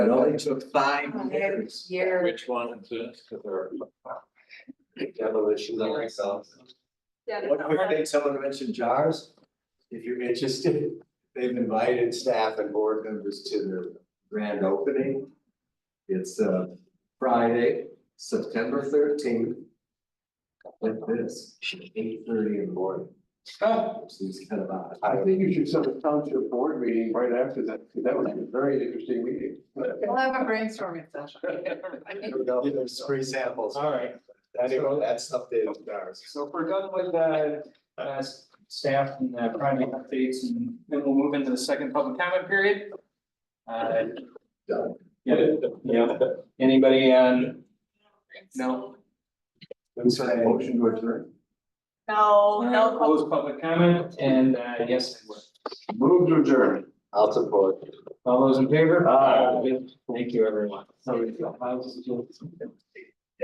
It only took five years. Year. Which one is this? Demolition of myself. Yeah, One quick thing, someone mentioned jars. If you're interested, they've invited staff and board members to their grand opening. It's uh Friday, September thirteenth. Like this, eight thirty in the morning, I which is kind of odd. think you should set a township board meeting right after that, because that would be a very interesting meeting. We'll have a brainstorming session. There's free samples. All right, Anyway, that's updated jars. So if we're done with the uh staff and the project updates and then we'll move into the second public comment period. Uh. Done. Yeah, yeah, anybody on? No, Who's for that motion to adjourn? No, Uh, close public comment and uh yes, move to adjourn. I'll support. all those in favor? Aye. Thank you, everyone.